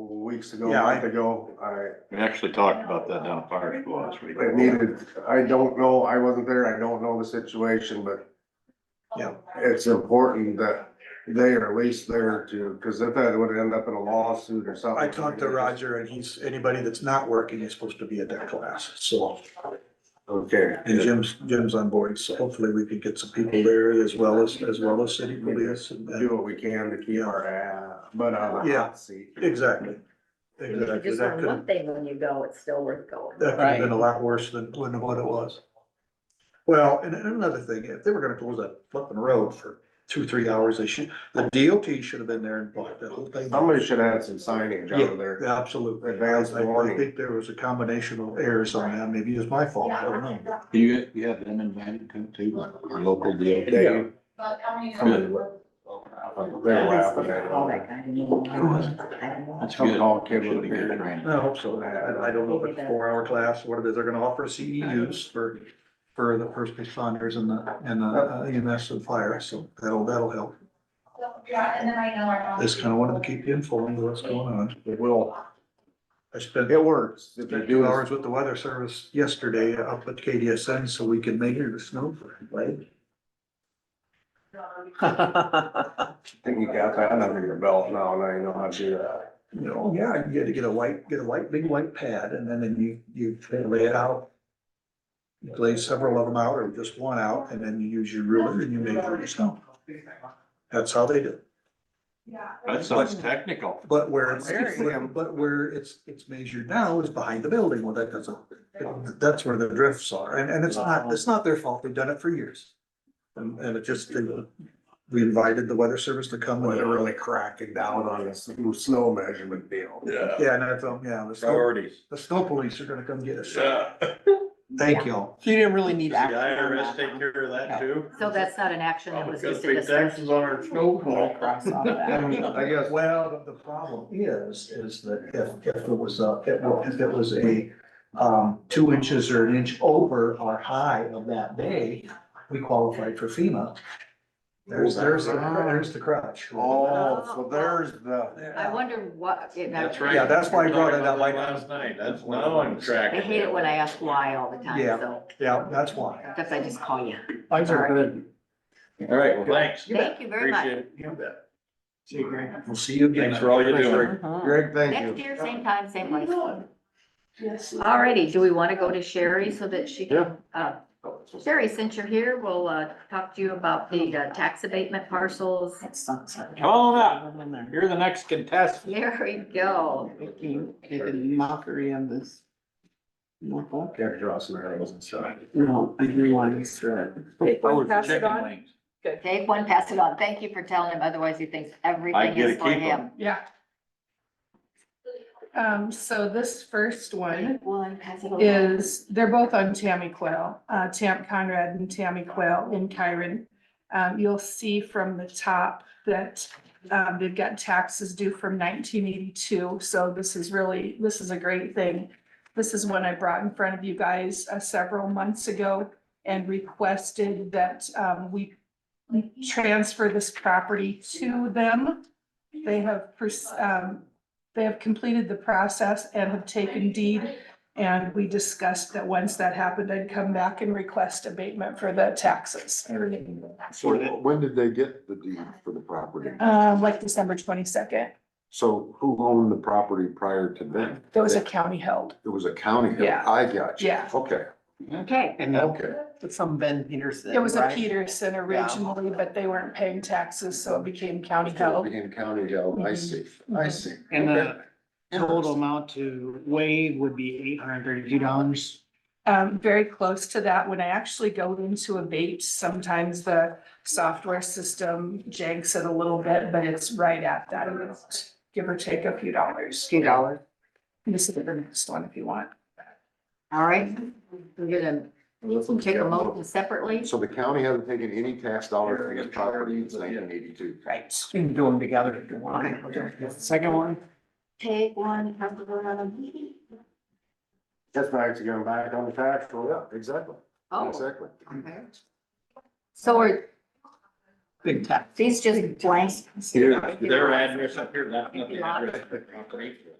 weeks ago, a Yeah, I- month ago, I, We actually talked about that down at fire school last week. it needed, I don't know, I wasn't there, I don't know the situation, but Yeah. it's important that they are at least there to, cause if that would end up in a lawsuit or something. I talked to Roger and he's, anybody that's not working is supposed to be at that class, so, Okay. and Jim's, Jim's on board, so hopefully we can get some people there as well as, as well as city police and, Do what we can to keep our, uh, butt out of the Yeah. hot seat. exactly. If you Exactly, just that learn could, one thing when you go, it's still worth going. that could have been a lot worse than, than what it was. Well, and and another thing, if they were gonna close that flipping road for two, three hours, they should, the DOT should have been there and blocked that whole thing. Somebody should add some signage out there. Absolutely. Advance I- I- I warning. think there was a combination of errors on that, maybe it's my fault, I don't know. Do you, you have them invited to, to your local deal? They, Good. they're laughing at All it. oh, that kind of. That's Some good. tall kid Should with a be good beard. training. I hope so, I, I don't know if it's a four-hour class, what it is, they're gonna offer a CEUs for, for the first responders and the, and the uh, EMS and fire, so that'll, that'll help. Yeah, and then I know our. Just kinda wanted to keep you informed of what's going on. It will, I spent it works. If you spent do two this hours with the weather service yesterday up at KDSN, so we can measure the snow. right? I think you got that under your belt now, and I know how to do that. You know, oh, yeah, you had to get a white, get a white, big white pad, and then then you, you lay it out. You lay several of them out, or just one out, and then you use your ruler and you measure the snow. That's how they do. it. That sounds technical. But where, it's- Very. but- but where it's, it's measured now is behind the building, well, that doesn't, that's where the drifts are, and, and it's not, it's not their fault, they've done it for years. And, and it just, we invited the weather service to come. Well, and- they're really cracking down on this snow measurement deal. Yeah. Yeah, and I thought, yeah, the snow, Priorities. the snow police are gonna come get us, Yeah. thank y'all. So you didn't really Does need the action on IRS that. take care of that too? So that's not an action, that was Probably gotta just a pay discussion. taxes on our We'll snowball. cross off that. I guess, Well, the- the problem is, is that if, if it was a, if it wa- if it was a, um, two inches or an inch over or high of that day, we qualified for FEMA. There's, there's, the cr- there's the crutch. oh, so there's the, I wonder what. it- That's right. Yeah, that's why I brought it Talked about up. uh, that Last night, that's now I'm I tracking. hate it when I ask why all the time, Yeah. so, Yeah, that's why. because I just call you. Things are good. All right, well, thanks. Thank you very much. Appreciate it. You bet. See you, Greg. We'll see you again. Thanks for all you do. Uh-huh. Mhm. Greg, thank Next you. year, same time, same place. Alrighty, do we want to go to Sherry so that she can, uh, Sherry, since you're here, we'll, uh, talk to you about the uh, tax abatement parcels. That sucks. Come on up. You're the next contestant. There we go. Making a mockery of this. Local. Can't draw some arrows inside. No, I realize that. Chicken wings. Take one, pass it on. Thank you for telling him, otherwise he thinks I everything get to is for keep him. them. Yeah. Um, so this first one One, pass it on. is, they're both on Tammy Quail, uh, Tam Conrad and Tammy Quail in Kyron. Um, you'll see from the top that, um, they've got taxes due from nineteen eighty-two, so this is really, this is a great thing. This is one I brought in front of you guys, uh, several months ago and requested that, um, we transfer this property to them. They have, pers- um, they have completed the process and have taken deed. And we discussed that once that happened, I'd come back and request abatement for the taxes. So when did they get the deed for the property? Um, like December twenty-second, So who owned the property prior to then? that was a county held, It was a county. held. Yeah. I got you. Yeah. Okay, Okay, And that- okay. that's some Ben Peterson. it was a right? Peterson originally, but they weren't paying taxes, so mhm. it became county held. Being county held, I see, I see. And Okay. the total amount to waive would be eight hundred thirty-two dollars. Um, very close to that, when I actually go into abate, sometimes the software system janks it a little bit, but it's right at that amount, give or take a few dollars. two dollars. This is the next one if you want. All right, we're gonna take a motion separately. So the county hasn't taken any tax dollars for his property since nineteen eighty-two. Right. You can do them together if you want. Second one? Take one, pass it on. That's nice to get them back on the tax roll. Yeah, exactly, Oh, exactly. okay. So are Big tax. these just blanks? Yeah. Their address up here, that's not the address.